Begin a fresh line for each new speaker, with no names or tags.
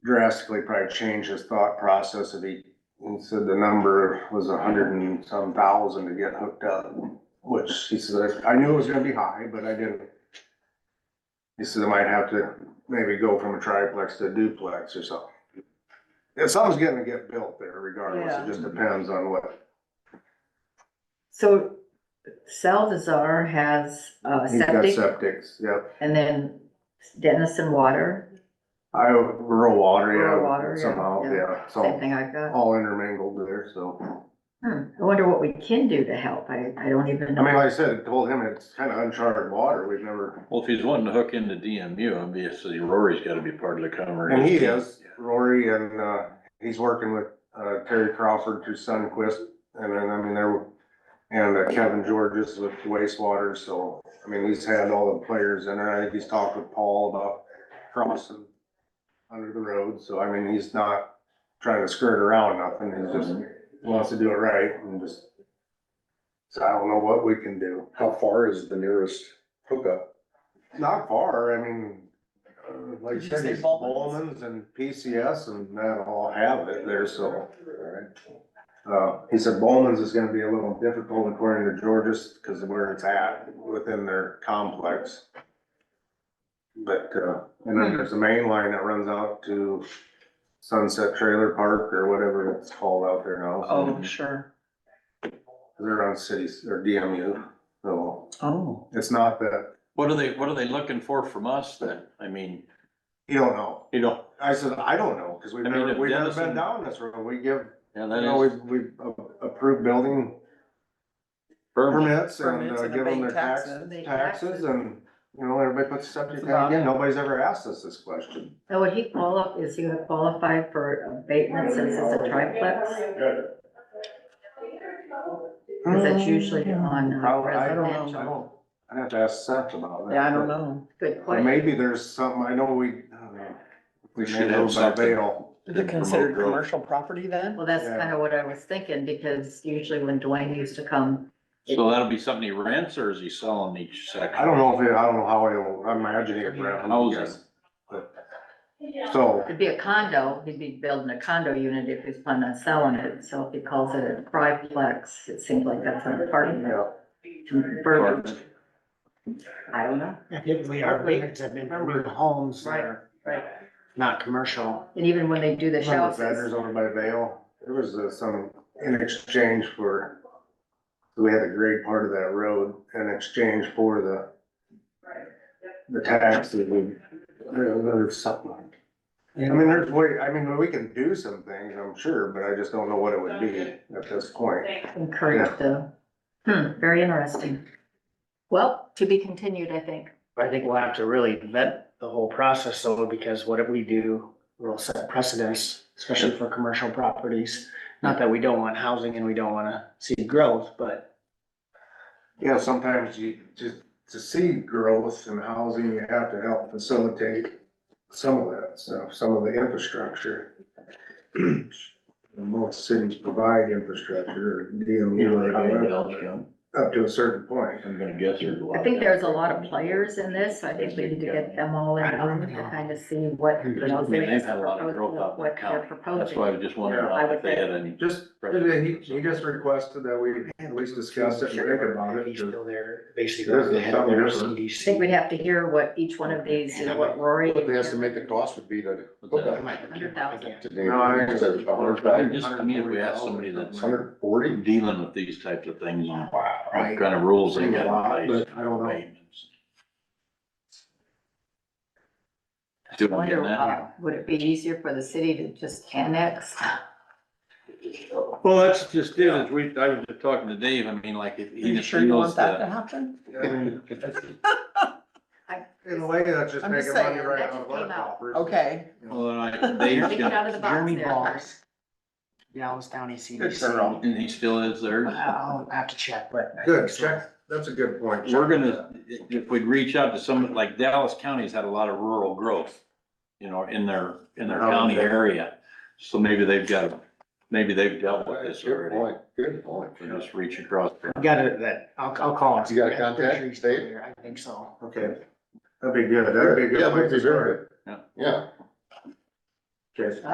drastically probably changed his thought process if he, he said the number was a hundred and some thousand to get hooked up. Which he said, I knew it was gonna be high, but I didn't. He said I might have to maybe go from a triplex to a duplex or something. Yeah, something's gonna get built there regardless,
Yeah.
it just depends on what.
So Salvazar has uh
He's got
septic
septics, yep,
and then Dennison Water,
I, rural
Rural water,
water,
yeah,
yeah, somehow,
yeah.
yeah, it's
same
all,
thing I've got.
all intermingled there, so.
Hmm, I wonder what we can do to help. I, I don't even
I mean,
know.
like I said, I told him it's kind of uncharted water, we've never,
Well, if he's wanting to hook into DMU, obviously Rory's gotta be part of the conversation.
and he is, Rory, and, uh, he's working with, uh, Terry Crawford through Sunquist, and then, I mean, there, and uh, Kevin Georges with wastewater, so, I mean, he's had all the players in there, I think he's talked with Paul about crossing under the road, so I mean, he's not trying to skirt around nothing, he's just wants to do it right, and just, so I don't know what we can do.
How far is the nearest hookup?
Not far, I mean, uh, like you
Did you
said,
say
these
Bowman's?
Bowman's and PCS and that all have it there, so.
Alright.
Uh, he said Bowman's is gonna be a little difficult according to Georges, cause of where it's at within their complex. But, uh, and then there's the main line that runs out to Sunset Trailer Park or whatever it's called out there now. so-
Oh, sure.
They're on cities, or DMU, so
Oh.
it's not that,
What are they, what are they looking for from us then? I mean,
you don't know.
you know,
I said, I don't know, cause we've
I mean,
never,
if
we've never
Dennison-
been down this road, we give
yeah,
You know, we,
that is.
we approved building
Burma.
permits and
Permits
uh,
and
give them
abate
their tax,
taxes.
Abate taxes.
taxes and, you know, everybody puts septic
That's
tank
about
in.
it.
Nobody's ever asked us this question.
Now, would he qualify, is he gonna qualify for abatement since it's a
Mm.
triplex? Cause that's usually
Mm.
on uh,
Hmm. Probably, I don't know, I
residential.
don't, I'd have to ask Seth about that.
Yeah, I don't
but-
know.
Good
Or
question.
maybe there's something, I know we, I don't know.
We
may
should
know
have
by
something.
bail.
Is it considered commercial property then?
Well, that's
Yeah.
kinda what I was thinking, because usually when Dwayne used to come,
So that'll be something he rents or is he selling each section?
I don't know if, it- I don't know how it'll, I imagine it.
Houses.
So,
it'd be a condo, he'd be building a condo unit if he's planning on selling it. So if he calls it a triplex, it seems like that's an apartment.
yeah,
Verbiage. I don't know.
Typically, our abatements have been for homes that are
Right.
not commercial.
And even when they do the
Some of the vendors
houses,
over by Vale, there was uh, some in exchange for, we had to grade part of that road in exchange for the the tax that we, there- there's something. I mean, there's way, I mean, we can do some things, I'm sure, but I just don't know what it would be at this point.
encourage the, hmm, very interesting. Well, to be continued, I think.
But I think we'll have to really vet the whole process though, because what we do will set precedents, especially for commercial properties. Not that we don't want housing and we don't wanna see growth, but
Yeah, sometimes you, just to see growth in housing, you have to help facilitate some of that stuff, some of the infrastructure. Most cities provide infrastructure, or DMU or however, up to a certain point.
I'm gonna guess there's a lot.
I think there's a lot of players in this, so I think we need to get them all in a room to kind of see what, you know,
I mean,
their
they've had a lot of growth out
proposal,
in the
what they're
county. That's why I
proposing.
was just wondering
Yeah, I would
if they had any.
Just, he, he just requested that we at least discuss it and think about it.
He's still there,
There's
basically, the head of
something
their
different.
I think
CDC.
we'd have to hear what each one of these, you know, what Rory.
What the estimated cost would be to hook
I
up
might-
Hundred thousand.
today?
No, I think it's a
I Just, I mean, if we have somebody that's
Hundred forty?
dealing with these types of things on
Wow.
what kind of rules they got in place.
But I don't know.
Payments. See what I'm
Wonder,
getting at?
uh, would it be easier for the city to just annex?
Well, that's just it, as we, I was just talking to Dave, I mean, like, if he
You
just
sure you
feels
want that to
that.
happen?
I mean,
I-
In a way, that's just
I'm just
making money
saying,
right
that
out
just
of our
came out.
coffers.
Okay.
Well, then I, Dave's
Think it
got,
out of the box
Jeremy
there.
Balls, Dallas County
It's their own.
CDC.
and he still is there.
I'll have to check, but. I
Good,
think so.
check, that's a good point.
We're gonna, if we'd reach out to some, like Dallas County's had a lot of rural growth, you know, in their, in
Oh,
their county area. So maybe they've got, maybe they've dealt with this
Good
already,
point, good point.
We just reach across.
Got it, that, I'll, I'll call him.
You got a
I'm pretty
contact,
sure he's still
Dave?
there. I think so.
Okay, that'd be good, that'd be a
Yeah,
good
that'd
place
be
to
very
start.
good. Yeah,
Yes.